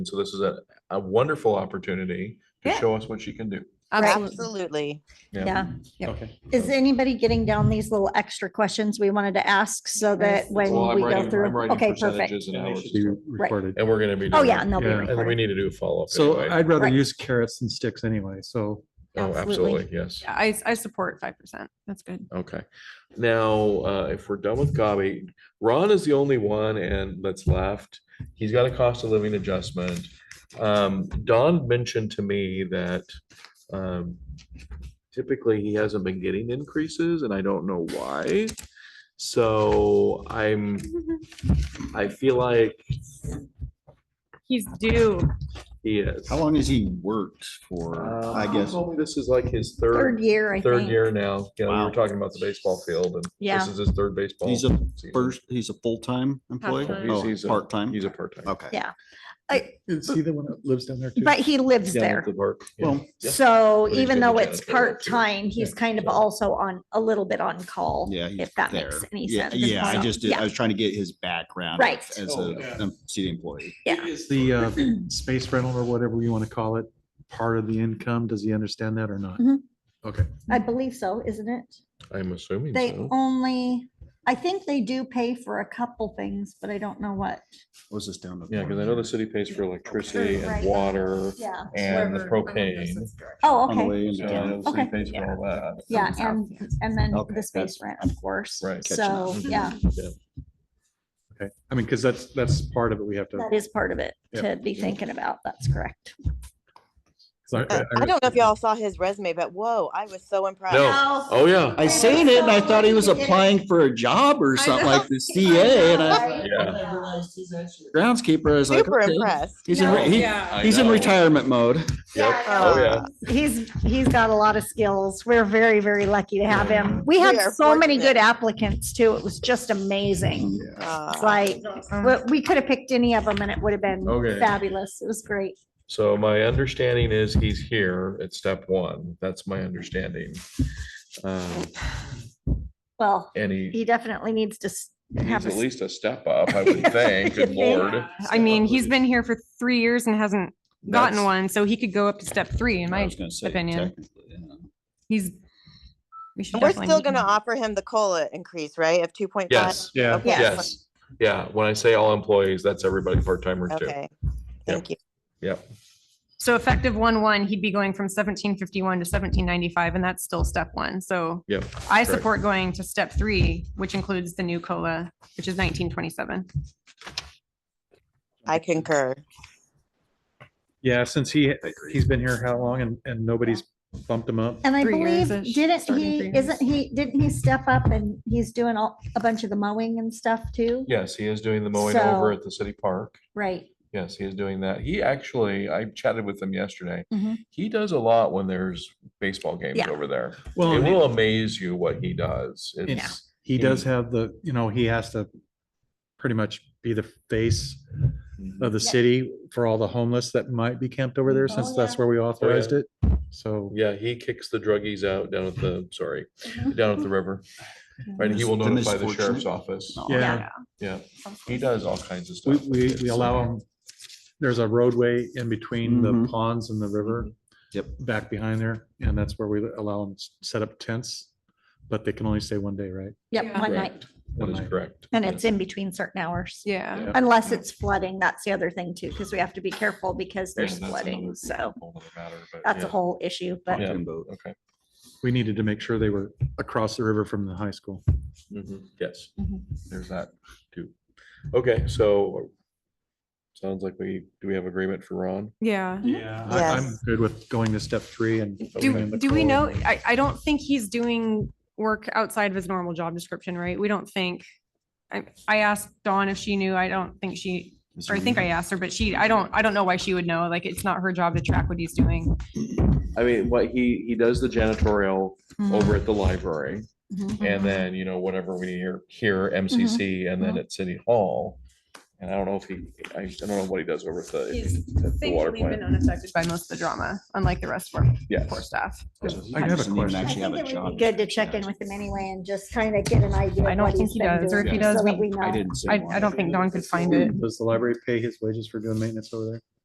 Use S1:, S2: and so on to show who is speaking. S1: And so this is a, a wonderful opportunity to
S2: Yeah.
S1: show us what she can do.
S2: Absolutely.
S3: Absolutely.
S1: Yeah.
S4: Yeah. Yep.
S5: Okay.
S4: Is anybody getting down these little extra questions we wanted to ask so that when
S1: Well, I'm
S4: we go
S1: writing- I'm
S4: through?
S1: writing
S4: Okay, perfect.
S1: percentages and
S5: And they
S1: hours.
S5: should be recorded.
S1: And we're gonna be.
S4: Oh,
S1: doing
S4: yeah,
S1: it.
S4: and they'll be
S5: Yeah,
S1: And then we
S4: recorded.
S1: need to do a follow up.
S5: So I'd rather
S4: Right.
S5: use carrots than sticks anyway, so.
S1: Oh,
S2: Absolutely.
S1: absolutely, yes.
S2: Yeah, I, I support five percent. That's good.
S1: Okay. Now, uh, if we're done with Gabi, Ron is the only one and that's left. He's got a cost of living adjustment. Um, Don mentioned to me that, um, typically he hasn't been getting increases and I don't know why. So I'm, I feel like
S2: He's due.
S1: he is.
S6: How long has he worked for,
S1: Uh,
S6: I
S1: he
S6: guess?
S1: told me This is like his third,
S4: Third year, I think.
S1: third year now. You know, we
S6: Wow.
S1: were talking about the baseball field and
S4: Yeah.
S1: this is his third baseball.
S6: He's a
S1: season.
S6: first, he's a full-time employee?
S2: Half-time.
S1: He's- he's
S6: Oh,
S1: a-
S6: part-time?
S1: He's a part-time.
S6: Okay.
S4: Yeah. I-
S5: Is he the one that lives down there too?
S4: But he lives
S1: Yeah,
S4: there.
S1: local park, yeah.
S6: Well,
S1: Yeah.
S4: So
S1: he's
S4: even
S1: gonna
S4: though
S1: be
S4: it's
S1: janitor there, too.
S4: part-time, he's kind of
S1: so-
S4: also on, a little bit on call.
S6: yeah. he's
S4: If that
S6: there.
S4: makes any
S6: Yeah,
S4: sense.
S6: Yeah, I
S4: So,
S6: just, did- I
S4: Yeah,
S6: was trying to get his background.
S4: Right.
S6: As
S5: Oh,
S6: a
S5: yeah.
S6: um, city employee.
S4: yeah.
S5: Is the uh, space rental or whatever you want to call it, part of the income? Does he understand that or not?
S4: Mhm.
S5: Okay.
S4: I believe so, isn't it?
S1: I'm assuming
S4: They
S1: so.
S4: only, I think they do pay for a couple things, but I don't know what.
S6: What was this down? the
S1: Yeah, because I know the city pays for electricity
S4: Right.
S1: and water
S4: Yeah.
S1: and the propane.
S4: Oh,
S6: On the
S4: okay.
S6: way into
S1: So I know
S6: town.
S1: the city
S4: Okay.
S1: pays for all that.
S4: Yeah, and, and then
S6: Okay,
S4: the space rent, of course.
S1: Right.
S6: Catching up.
S4: So, yeah,
S5: Okay. I mean, because that's, that's part of it. We have to.
S4: that is part of it
S5: Yeah.
S4: to be thinking about. That's correct.
S5: 'cause I-
S3: Uh, I don't know if y'all saw his resume, but whoa, I was so impressed.
S1: No. Oh, yeah.
S6: I seen it and I thought he was applying for a job or
S2: I
S6: something
S2: know.
S6: like the CA and I,
S4: Yeah.
S6: groundskeeper, I was like.
S3: Super
S6: okay.
S3: impressed.
S6: He's in,
S4: No.
S6: re- he-
S2: Yeah.
S6: he's in retirement mode.
S1: Yep.
S3: Oh,
S1: yeah.
S4: He's, he's got a lot of skills. We're very, very lucky to have him. We
S3: We
S4: had
S3: are
S4: so many good
S3: fortunate.
S4: applicants too. It was just amazing. It's
S3: Uh,
S4: Like, we, we could have picked any of them and it would have been
S1: Okay.
S4: fabulous. It was great.
S1: So my understanding is he's here at step one. That's my understanding. Um,
S4: Well,
S1: And he
S4: he definitely needs to s-
S1: needs
S4: have, a
S1: at
S4: s-
S1: least a step up, I would think. Good
S4: Yeah.
S1: lord.
S2: I mean, he's been here for three years and hasn't gotten
S1: That's-
S2: one, so he could go up to step three in
S6: I
S2: my,
S6: was gonna say,
S2: opinion.
S6: technically, yeah.
S2: he's. we should
S3: and We're
S2: definitely
S3: still
S2: meet him.
S3: gonna offer him the COLA increase, right? Of two point five?
S1: Yes,
S5: Yeah.
S3: Okay.
S1: yes. Yeah, when I say all employees, that's everybody part timer too.
S3: Okay, thank you.
S2: So effective one, one, he'd be going from seventeen fifty-one to seventeen ninety-five, and that's still step one, so.
S1: Yep,
S2: I
S1: correct.
S2: support going to step three, which includes the new COLA, which is nineteen twenty-seven.
S3: I concur.
S5: Yeah, since he, he's been here how long and, and nobody's bumped him up?
S4: and I
S2: Three years
S4: believe,
S2: ish,
S4: didn't
S2: starting
S4: he,
S2: three years.
S4: isn't he, didn't he step up and he's doing all, a bunch of the mowing and stuff too?
S1: Yes, he is doing the mowing over
S4: So-
S1: at the city park.
S4: Right.
S1: Yes, he is doing that. He actually, I chatted with him yesterday.
S4: Mhm.
S1: He does a lot when there's baseball games
S4: Yeah.
S1: over there.
S5: Well,
S1: it
S5: and-
S1: will amaze you what he does. It's
S5: He does have the, you know, he has to pretty much be the face of the
S4: Yeah.
S5: city for all the homeless that might be camped over there
S4: Oh,
S5: since
S4: yeah.
S5: that's where we authorized it. So,
S1: yeah, he kicks the druggies out down at the sorry,
S4: Mhm.
S1: down at the river. Right, and he will
S6: The mis- the
S1: notify the sheriff's
S6: misfortunate.
S1: office.
S6: No.
S5: yeah,
S1: Oh, Yeah, he does all kinds of
S5: we,
S1: stuff.
S5: we, we
S1: It's,
S5: allow
S1: uh,
S5: them, there's a roadway in between the
S6: Mhm.
S1: Mm-hmm.
S5: ponds and the river.
S6: Yep.
S5: Back behind there, and that's where we allow them to set up tents, but they can only stay one day, right?
S4: Yep,
S2: Yeah.
S4: one
S1: Correct.
S4: night.
S1: That is
S5: Right.
S1: correct.
S4: And
S1: Yes.
S4: it's in between certain hours.
S2: Yeah.
S1: Yeah.
S4: Unless it's flooding, that's the other thing too, because we have to be careful because
S1: Yeah,
S4: there's
S1: that's
S4: flooding,
S1: another
S4: so
S1: whole other matter, but
S4: that's a
S1: yeah.
S4: whole issue, but
S1: Yeah.
S6: Fucking boat.
S1: Okay.
S5: We needed to make sure they were across the river from the high school.
S1: Mhm. Yes,
S2: Mhm.
S1: there's that too. Okay, so sounds like we, do we have agreement for Ron?
S2: Yeah.
S5: Yeah.
S3: Yes.
S5: I'm good with going to step three and. putting in
S2: Do,
S5: the
S2: do we
S5: code.
S2: know, I, I don't think he's doing work outside of his normal job description, right? We don't think. I, I asked Dawn if she knew. I don't think she, or I think I asked her, but she, I don't, I don't know why she would know. Like, it's not her job to track what he's doing.
S1: I mean, what he, he does the janitorial
S2: Mm-hmm.
S1: over at the library and then, you know, whatever we hear, here MCC and then at City Hall. And I don't know if he, I I don't know what he does over at the,
S2: He's
S1: at the water
S2: thankfully been
S1: plant.
S2: unaffected by most of the drama, unlike the rest of our poor
S1: Yes.
S2: staff.
S5: I have a question.
S4: I think it would be good to check in with him anyway and just kind of get an idea.
S2: I
S4: of
S2: don't
S4: what
S2: think
S4: he's
S2: he
S4: been
S2: does, or if
S4: doing
S2: he does,
S4: so that
S2: we-
S4: know.
S6: I didn't say
S2: I,
S6: why.
S2: I don't think Dawn could find it.
S5: Does the library pay his wages for doing maintenance over there?